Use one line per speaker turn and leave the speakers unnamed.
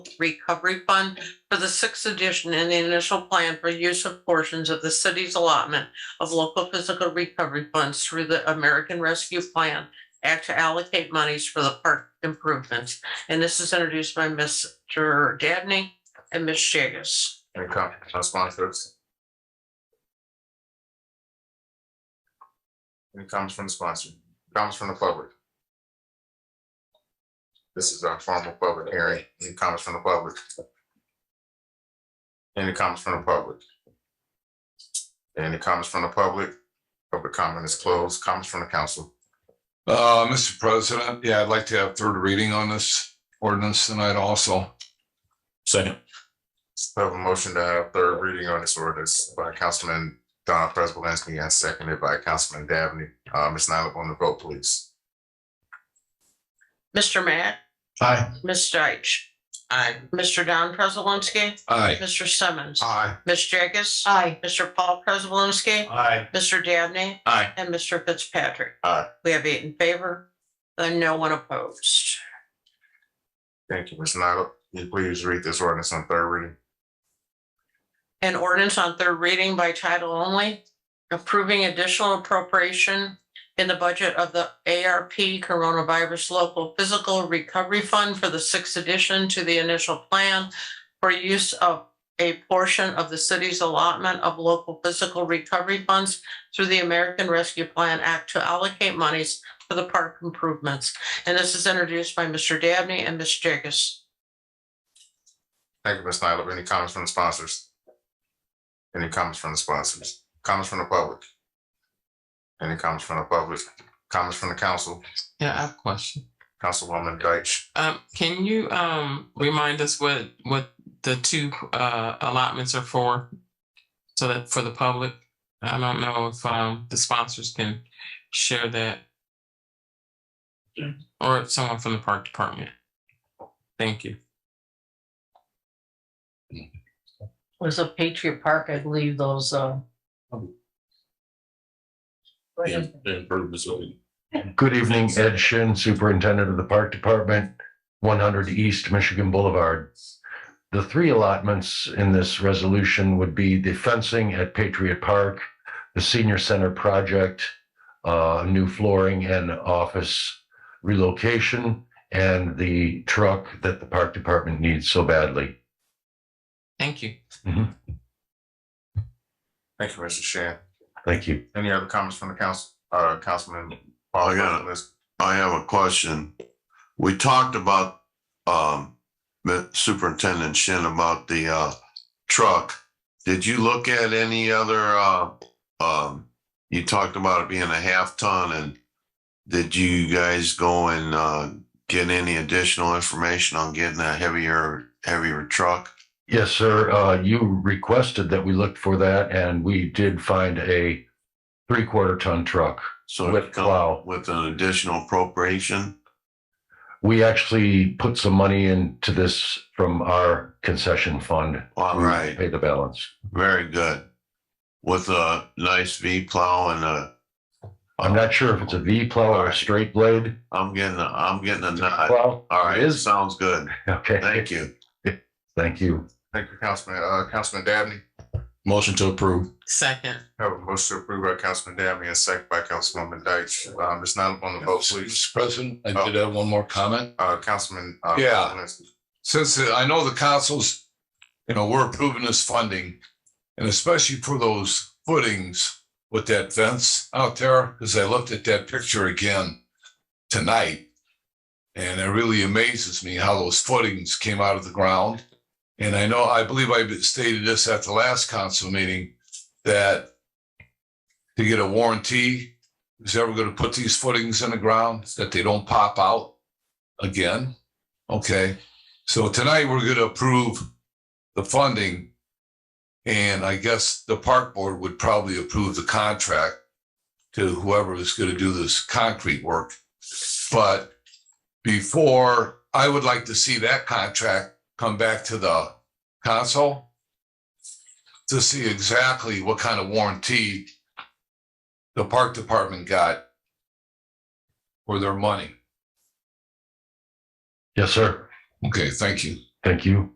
Recovery Fund for the sixth edition and the initial plan for use of portions of the city's allotment of local physical recovery funds through the American Rescue Plan Act to allocate monies for the park improvements. And this is introduced by Mr. Dabney and Ms. Jagus.
Any comments on sponsors? Any comments from the sponsor? Comments from the public? This is our formal public hearing. Any comments from the public? Any comments from the public? Any comments from the public? Public comment is closed. Comments from the council.
Uh, Mr. President, yeah, I'd like to have third reading on this ordinance tonight also.
Second.
I Have a motion to have third reading on this ordinance by Councilman Don Prespolinski and seconded by Councilman Dabney. Uh, Ms. Nyla on the vote, please.
Mr. Matt,
Aye.
Ms. Deitch. Aye. Mr. Don Prespolinski.
Aye.
Mr. Simmons.
Aye.
Ms. Jagus. Aye. Mr. Paul Prespolinski.
Aye.
Mr. Dabney.
Aye.
And Mr. Fitzpatrick.
Aye.
We have eight in favor and no one opposed.
Thank you, Ms. Nyla. Will you please read this ordinance on third reading?
An ordinance on third reading by title only, approving additional appropriation in the budget of the ARP Coronavirus Local Physical Recovery Fund for the sixth addition to the initial plan for use of a portion of the city's allotment of local physical recovery funds through the American Rescue Plan Act to allocate monies for the park improvements. And this is introduced by Mr. Dabney and Ms. Jagus.
Thank you, Ms. Nyla. Any comments from the sponsors? Any comments from the sponsors? Comments from the public? Any comments from the public? Comments from the council?
Yeah, I have a question.
Councilwoman Deitch.
Um, can you um remind us what what the two uh allotments are for? So that for the public, I don't know if um the sponsors can share that. Or if someone from the park department. Thank you.
Was a Patriot Park, I believe those, uh.
The improvements will be-
Good evening, Ed Shin, Superintendent of the Park Department, one hundred East Michigan Boulevard. The three allotments in this resolution would be the fencing at Patriot Park, the Senior Center project, uh, new flooring and office relocation, and the truck that the Park Department needs so badly.
Thank you.
Thank you, Mr. Shan.
Thank you.
Any other comments from the council, uh, Councilman?
I got I have a question. We talked about, um, Superintendent Shin about the, uh, truck. Did you look at any other, uh, um, you talked about it being a half ton and did you guys go and, uh, get any additional information on getting a heavier, heavier truck?
Yes, sir. Uh, you requested that we look for that and we did find a three-quarter ton truck.
So it
With
come
plow.
With an additional appropriation?
we actually put some money into this from our concession fund.
All right.
Pay the balance.
Very good. With a nice V plow and a.
I'm not sure if it's a V plow or a straight blade
I'm getting, a- I'm getting a nod.
plow.
All right,
It is.
sounds good.
Okay.
Thank you.
Thank you.
Thank you, Councilman, uh, Councilman Dabney.
Motion to approve.
Second,
Have a motion approved by Councilman Dabney and second by Councilwoman Deitch. Uh, Ms. Nyla on the vote, please.
Mr. President, I did have one more comment.
Uh, Councilman. uh,
Yeah.
Prespolinski.
Since uh, I know the councils, you know, we're approving this funding and especially for those footings with that fence out there, because I looked at that picture again tonight. And it really amazes me how those footings came out of the ground. And I know, I believe I stated this at the last council meeting, that to get a warranty, is ever going to put these footings in the ground that they don't pop out again? Okay, so tonight we're going to approve the funding. And I guess the park board would probably approve the contract to whoever is going to do this concrete work. But before, I would like to see that contract come back to the council to see exactly what kind of warranty the park department got for their money.
Yes, sir.
Okay, thank you.
Thank you.